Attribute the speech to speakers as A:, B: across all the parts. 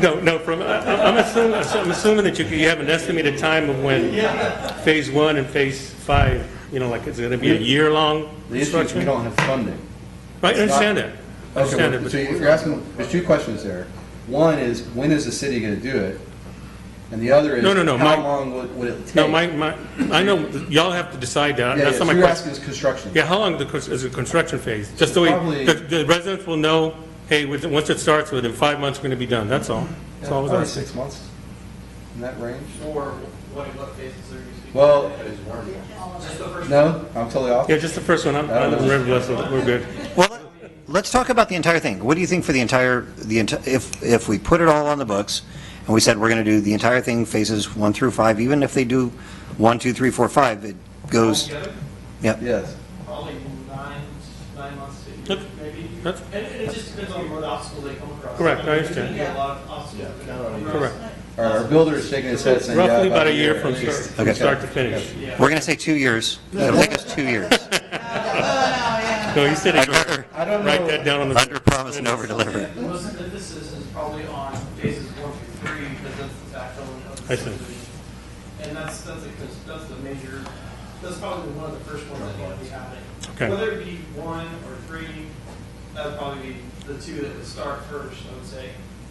A: No, no, from, I- I'm assuming, I'm assuming that you you have an estimated time of when Phase 1 and Phase 5, you know, like, it's going to be a year-long
B: The issue is we
A: construction?
B: don't have funding.
A: Right, I understand that. I understand that,
B: Okay, well,
A: but-
B: so you're asking, there's two questions there. One is, when is the city gonna do it? And the other is,
A: No, no, no,
B: how
A: my-
B: long would would it take?
A: No, my, my, I know, y'all have to decide that,
B: Yeah, yeah,
A: that's
B: so
A: not my
B: you're
A: question.
B: asking is construction.
A: Yeah, how long the cons- is the construction phase? Just so we,
B: Probably-
A: the the residents will know, hey, within- once it starts, within five months, we're going to be done, that's all. That's all I was
B: Probably
A: asking.
B: six months, in that range.
C: Or what, what phases are you speaking?
B: Well-
C: of? Just the first
B: No, I'm totally off.
A: Yeah, just the first one, I'm,
B: I
A: I'm
B: don't know.
A: very blessed, with it. we're good.
D: Well, let- let's talk about the entire thing. What do you think for the entire, the, enti- if, if we put it all on the books, and we said we're going to do the entire thing, phases one through five, even if they do one, two, three, four, five, it goes,
C: together,
D: yeah.
B: Yes.
C: Probably nine, nine months to a
A: Yep.
C: year, maybe.
A: Yep.
C: And, and it just depends on what obstacles they come across.
A: Correct, I
C: There's
A: understand.
C: gonna be a lot of obstacles that come across.
A: Correct.
B: All right, Our builder is shaking his head saying, yeah.
A: Roughly about a year from start, from
D: Okay.
A: start to finish.
D: We're going to say two years. It'll take us two years.
A: No, he said a
D: I'd
A: year.
D: rather
B: I don't
A: Write that
B: know,
A: down on the,
D: under promise and over deliver.
C: Most emphasis is probably on phases one through three, because that's the backbone of
A: I
C: the
A: see.
C: subdivision. And that's, that's, a cons- that's the major, that's probably one of the first ones that's gonna be happening.
A: Okay.
C: Whether it be one or three, that'd probably be the two that would start first, I would say.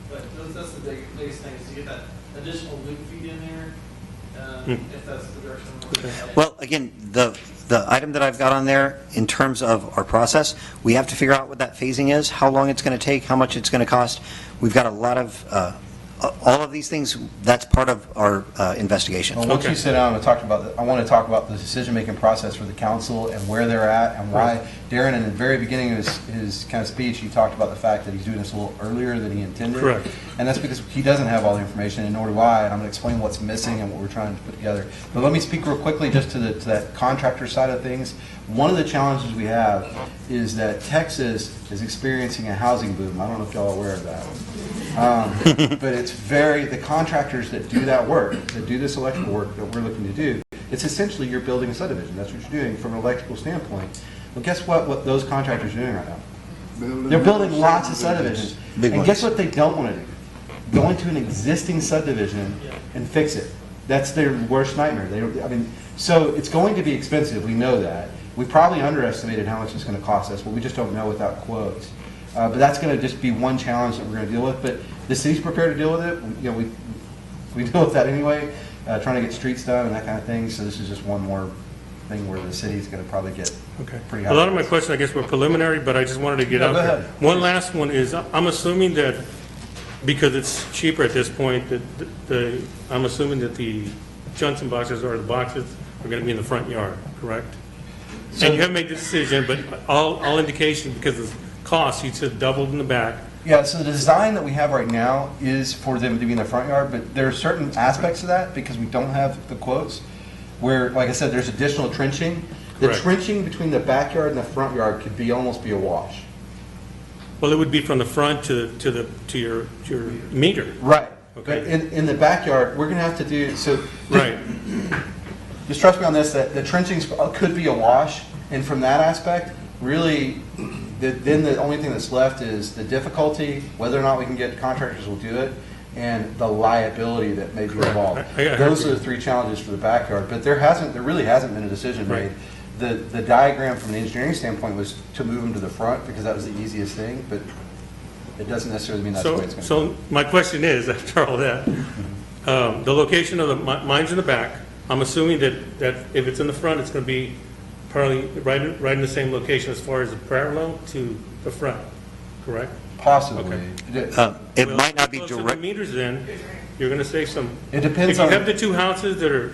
C: But those- that's the big- biggest thing, is to get that additional loop feed in there, uh,
A: Hmm.
C: if that's the direction we're going.
D: Well, again, the, the item that I've got on there, in terms of our process, we have to figure out what that phasing is, how long it's going to take, how much it's going to cost. We've got a lot of, uh, all of these things, that's part of our uh, investigation.
B: Well, once
A: Okay.
B: you sit down and talk about, the- I want to talk about the decision-making process for the council and where they're at and why. Darren, in the very beginning of his, his kind of speech, he talked about the fact that he's doing this a little earlier than he intended.
A: Correct.
B: And that's because he doesn't have all the information, and nor do I, and I'm going to explain what's missing and what we're trying to put together. But let me speak real quickly just to the, to that contractor side of things. One of the challenges we have is that Texas is experiencing a housing boom. I don't know if y'all are aware of that. Um, But it's very, the contractors that do that work, that do this electrical work that we're looking to do, it's essentially you're building a subdivision. That's what you're doing from an electrical standpoint. Well, guess what, what those contractors are doing right now? They're building lots of subdivisions.
D: Big
B: And
D: ones.
B: guess what they don't want to do? Go into an existing subdivision and fix it. That's their worst nightmare. They, don't- I mean, so it's going to be expensive, we know that. We probably underestimated how much it's going to cost us, but we just don't know without quotes. Uh, But that's going to just be one challenge that we're going to deal with, but the city's prepared to deal with it. We- You know, we, we deal with that anyway, uh, trying to get streets done and that kind of thing, so this is just one more thing where the city's going to probably get
A: okay.
B: pretty high.
A: A lot of my questions, I guess, were preliminary, but I just wanted to get
B: No,
A: out
B: go
A: there.
B: ahead.
A: One last one is, I'm assuming that, because it's cheaper at this point, that the, I'm assuming that the Johnson boxes or the boxes are going to be in the front yard, correct? And you haven't made the decision, but all, all indication, because of cost, you said doubled in the back.
B: Yeah, so the design that we have right now is for them to be in the front yard, but there are certain aspects of that, because we don't have the quotes, where, like I said, there's additional trenching. The
A: Correct.
B: trenching between the backyard and the front yard could be, almost be a wash.
A: Well, it would be from the front to, to the, to your, to your meter.
B: Right. But
A: Okay.
B: in, in the backyard, we're gonna have to do, so,
A: Right,
B: just trust me on this, that the trenching uh, could be a wash, and from that aspect, really, the- then the only thing that's left is the difficulty, whether or not we can get contractors will do it, and the liability that may be
A: Correct.
B: involved.
A: I- I- I
B: Those
A: agree.
B: are the three challenges for the backyard, but there hasn't, there really hasn't been a decision
A: Right.
B: made. The, the diagram from an engineering standpoint was to move them to the front, because that was the easiest thing, but it doesn't necessarily mean that's the way
A: so,
B: it's gonna go. Mm-hmm.
A: so my question is, after all that, um, the location of the, mi- mine's in the back, I'm assuming that, that if it's in the front, it's gonna be probably right, in- right in the same location as far as the parallel to the front, correct?
B: Possibly.
A: Okay.
B: It-
D: Uh, It
A: Well,
D: might not be
A: close to the
D: direct,
A: meters then, you're gonna save some.
B: It depends
A: If you have
B: on,
A: the two houses that are,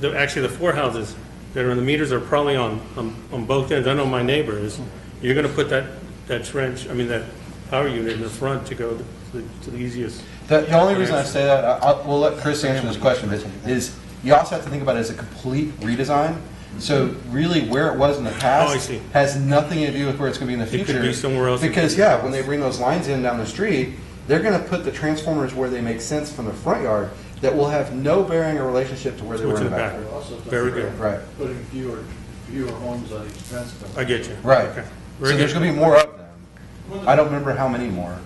A: the- actually, the four houses that are in the meters are probably on, on- on both ends, I know my neighbor is, you're gonna put that, that trench, I mean, that power unit in the front to go to the- to the easiest.
B: the, the only reason I say that, I- I'll, we'll let Chris answer this question, but is you also have to think about it as a complete redesign. So really where it was in the
A: Oh, I
B: past
A: see.
B: has nothing to do with where it's gonna be in the
A: It
B: future.
A: could be somewhere else.
B: Because, yeah, when they bring those lines in down the street, they're gonna put the transformers where they make sense from the front yard that will have no bearing or relationship to where they were
A: What's
B: in
A: in
B: the
A: the
B: back.
A: back?
B: yard.
E: Also, don't
A: Very
E: forget
A: good.
B: Right,
E: Putting fewer, fewer homes on each fence.
A: I get you.
B: right.
A: Okay.
B: So
A: Very
B: there's
A: good.
B: gonna be more of them. I don't remember how many more.